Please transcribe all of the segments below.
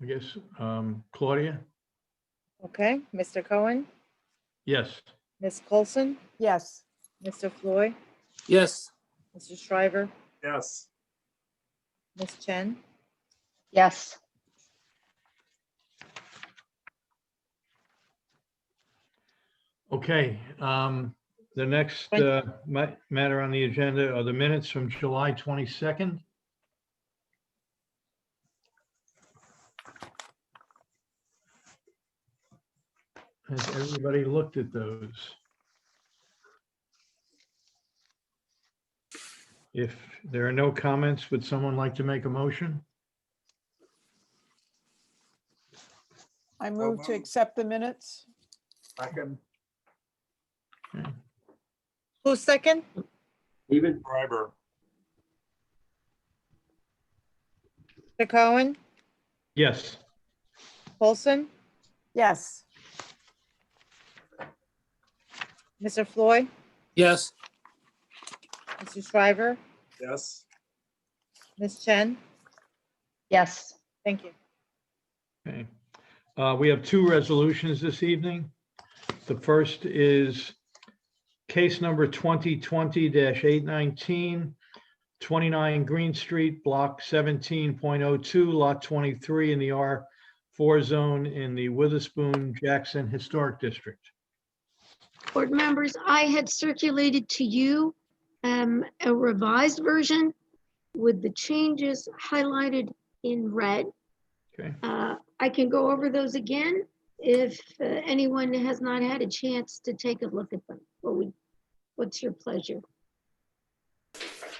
I guess. Um, Claudia? Okay, Mr. Cohen, Yes. Ms. Coulson, Yes. Mr. Floyd, Yes. Mr. Shriver, Yes. Ms. Chen, yes, Okay, um, the next, Thank- uh, ma- matter on the agenda are the minutes from July twenty-second. Has everybody looked at those? If there are no comments, would someone like to make a motion? I move to moved. accept the minutes. Second. who's second? David Schreiber. Mr. Cohen, Yes, Coulson, Yes. Mr. Floyd, Yes. Mr. Shriver, Yes. Ms. Chen, yes, thank you. Okay. Uh, We have two resolutions this evening. The first is case number 2020-819, 29 Green Street, Block 17.02, Lot 23 in the R4 zone in the Witherspoon Jackson Historic District. Board members, I had circulated to you um, a revised version with the changes highlighted in red. Okay. Uh, I can go over those again if uh, anyone has not had a chance to take a look at them. What would- What's your pleasure? Could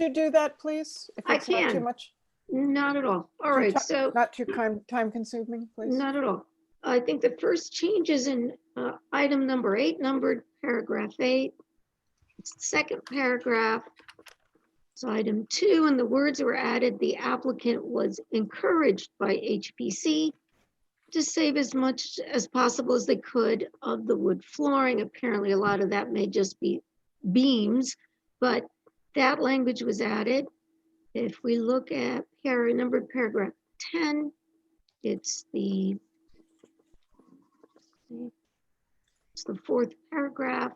you do that, please? If I it's not Too can. much, Not at all. All Too right, tough. so. not too time, time consuming, please? Not at all. I think the first change is in uh, item number eight, numbered paragraph eight. It's the second paragraph. So item two, and the words were added, the applicant was encouraged by HPC to save as much as possible as they could of the wood flooring. Apparently, a lot of that may just be beams, but that language was added. If we look at here, numbered paragraph 10, it's the it's the fourth paragraph.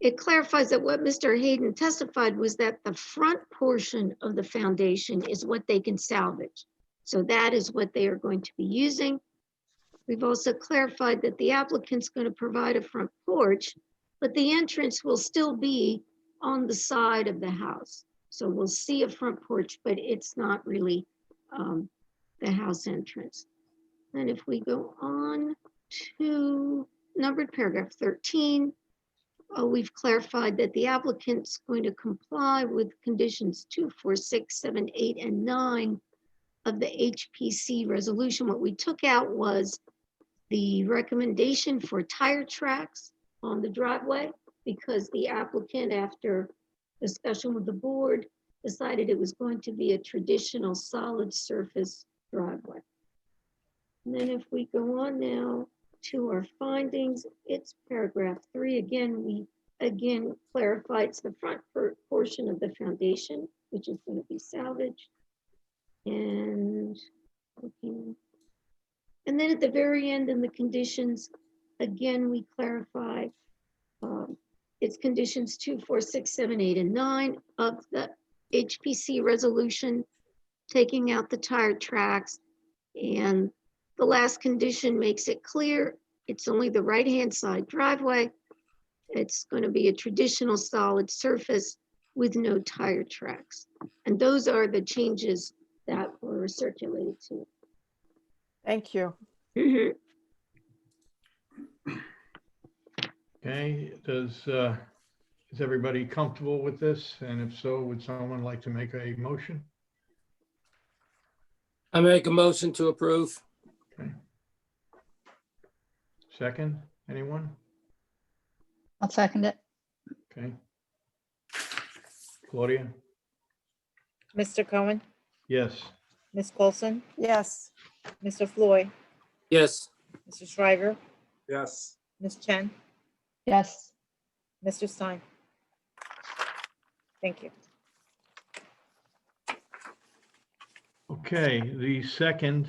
It clarifies that what Mr. Hayden testified was that the front portion of the foundation is what they can salvage. So that is what they are going to be using. We've also clarified that the applicant's going to provide a front porch, but the entrance will still be on the side of the house. So we'll see a front porch, but it's not really um, the house entrance. And if we go on to numbered paragraph 13, uh, we've clarified that the applicant's going to comply with conditions two, four, six, seven, eight, and 9 of the HPC resolution. What we took out was the recommendation for tire tracks on the driveway because the applicant, after discussion with the board, decided it was going to be a traditional solid surface driveway. And then if we go on now to our findings, it's paragraph three. Again, we again clarify it's the front per- portion of the foundation, which is going to be salvaged. And looking. And then at the very end in the conditions, again, we clarify um, it's conditions two, four, six, seven, eight, and nine of the HPC resolution, taking out the tire tracks. And the last condition makes it clear, it's only the right-hand side driveway. It's going to be a traditional solid surface with no tire tracks. And those are the changes that were circulated to. Thank you. you. Okay, does, uh, is everybody comfortable with this? And if so, would someone like to make a motion? I make a motion to approve. Second, anyone? I'll second it, Okay. Claudia? Mr. Cohen, Yes. Ms. Coulson, Yes. Mr. Floyd, Yes. Mr. Shriver, Yes. Ms. Chen, yes. Mr. Stein. Thank you. Okay, the second